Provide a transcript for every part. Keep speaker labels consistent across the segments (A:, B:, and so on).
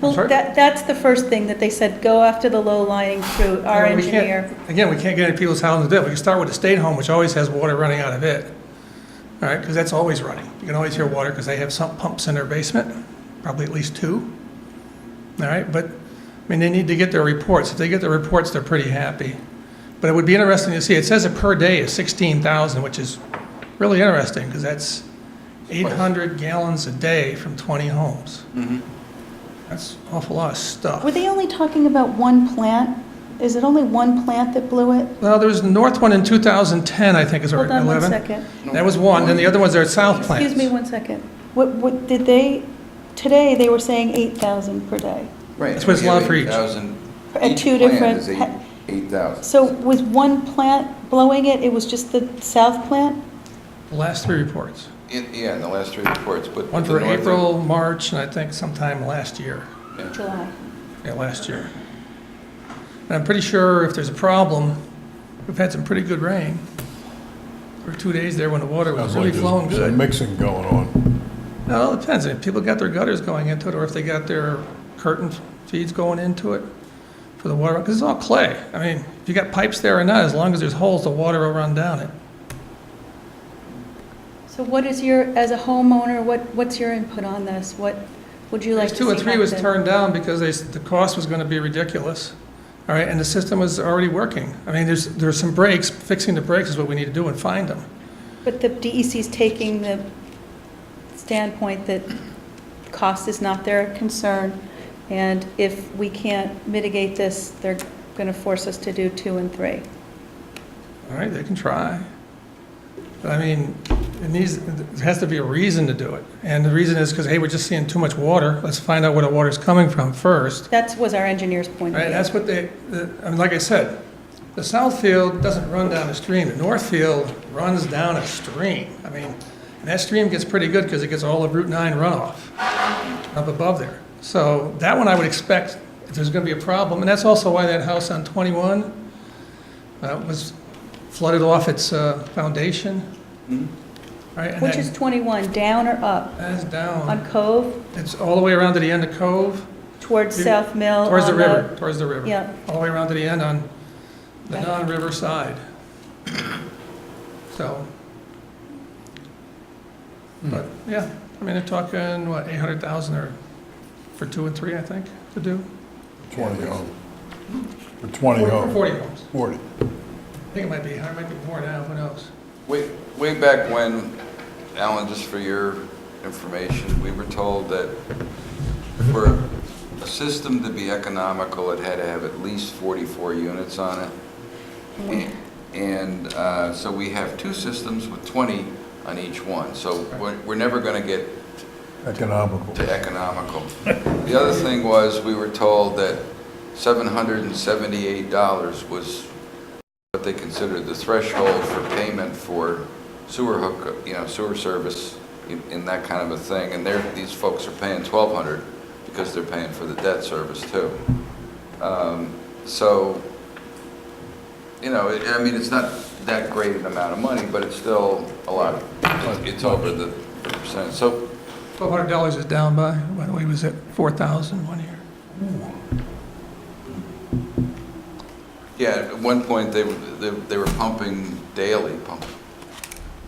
A: Well,
B: sorry?
A: that, that's the first thing that they said, go after the low-lying fruit, our
B: You know, we can't-
A: engineer.
B: Again, we can't get into people's houses, we can start with the state home, which always has water running out of it. All right, because that's always running. You can always hear water because they have some pumps in their basement, probably at least two. All right, but, I mean, they need to get their reports. If they get their reports, they're pretty happy. But it would be interesting to see, it says it per day is 16,000, which is really interesting because that's 800 gallons a day from 20 homes.
C: Mm-hmm.
B: That's an awful lot of stuff.
A: Were they only talking about one plant? Is it only one plant that blew it?
B: Well, there was the north one in 2010, I think, is or
A: Hold on one
B: 11.
A: second.
B: That was one, then the other ones are at south plants.
A: Excuse me one second. What, what, did they, today, they were saying 8,000 per day.
C: Right.
B: That's what it's allowed for each.
C: 8,000.
A: At
C: Each
A: two
C: plan
A: different
C: is
A: pa-
C: eight- 8,000.
A: So with one plant blowing it, it was just the south plant?
B: The last three reports.
C: In- Yeah, in the last three reports, but.
B: One
C: the
B: for
C: northern-
B: April, March, and I think sometime last year,
A: July.
B: yeah, last year. And I'm pretty sure if there's a problem, we've had some pretty good rain. For two days there when the water was
D: Sounds
B: really
D: like there's
B: flowing
D: some
B: good.
D: Mixing going on.
B: No, it depends, if people got their gutters going into it, or if they got their curtain feeds going into it for the water, because it's all clay. I mean, if you got pipes there or not, as long as there's holes, the water will run down it.
A: So what is your, as a homeowner, what, what's your input on this? What would you like
B: Phase
A: to see
B: two and three was
A: happen?
B: turned down because they, s- the cost was gonna be ridiculous, all right, and the system was already working. I mean, there's, there's some breaks, fixing the breaks is what we need to do and find them.
A: But the DEC is taking the standpoint that cost is not their concern, and if we can't mitigate this, they're going to force us to do two and three.
B: All right, they can try. But I mean, it needs, there has to be a reason to do it. And the reason is because, hey, we're just seeing too much water, let's find out where the water's coming from first.
A: That was our engineer's point of
B: Right,
A: view.
B: that's what they, the- I mean, like I said, the south field doesn't run down a stream, the north field runs down a stream. I mean, and that stream gets pretty good because it gets all of Route 9 runoff up above there. So that one I would expect if there's going to be a problem, and that's also why that house on 21 uh, was flooded off its uh, foundation. Right, and
A: Which is
B: that,
A: 21, down or up?
B: that is down,
A: On Cove,
B: it's all the way around to the end of Cove,
A: towards
B: You-
A: South Mill?
B: towards the
A: Oh, on
B: river, towards the river.
A: Yeah,
B: all the way around to the end on the
A: Right.
B: non-river side. So, but, yeah, I mean, they're talking, what, 800,000 or, for two and three, I think, to do?
D: Twenty homes. For twenty
B: Forty-
D: homes.
B: 40 homes.
D: Forty.
B: I think it might be, it might be more now, who knows?
C: Way, way back when, Alan, just for your information, we were told that for a system to be economical, it had to have at least 44 units on it.
A: Mm-hmm.
C: A- And uh, so we have two systems with 20 on each one, so we're, we're never going to get
D: Economical.
C: to economical. The other thing was, we were told that $778 was what they considered the threshold for payment for sewer hook, you know, sewer service in- in that kind of a thing, and they're, these folks are paying 1,200 because they're paying for the debt service too. Um, So, you know, it- I mean, it's not that great an amount of money, but it's still a lot. It's- It's over the percent. So
B: $1,200 is down by, by the way, was it 4,000 one year?
C: Yeah, at one point, they, were- they they were pumping daily, pumping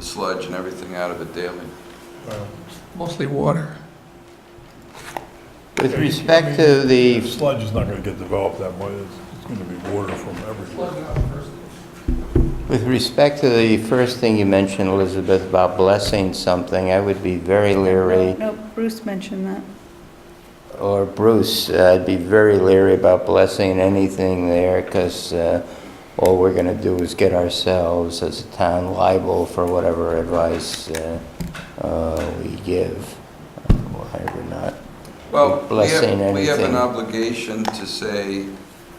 C: sludge and everything out of it daily.
D: Well,
B: Mostly water.
E: With respect to the,
D: Sludge is not gonna get developed that way. It's, it's gonna be water from everywhere.
E: with respect to the first thing you mentioned, Elizabeth, about blessing something, I would be very
A: no,
E: leery,
A: no, Bruce mentioned that.
E: or Bruce, uh, I'd be very leery about blessing anything there, because all we're going to do is get ourselves as a town liable for whatever advice uh, uh, we give, why or not.
C: Well, we
E: Blessing
C: have, we have an
E: anything.
C: obligation to say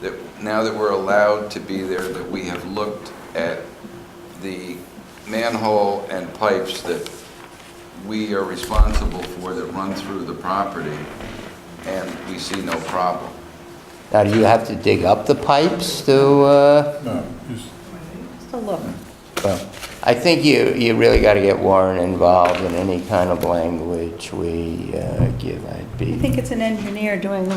C: that now that we're allowed to be there, that we have looked at the manhole and pipes that we are responsible for that run through the property, and we see no problem.
E: Now, do you have to dig up the pipes to, uh,
D: No, just,
A: Just a look.
E: Well, I think you, you really got to get Warren involved in any kind of language we uh, give. I'd
A: I
E: be
A: think it's an engineer doing the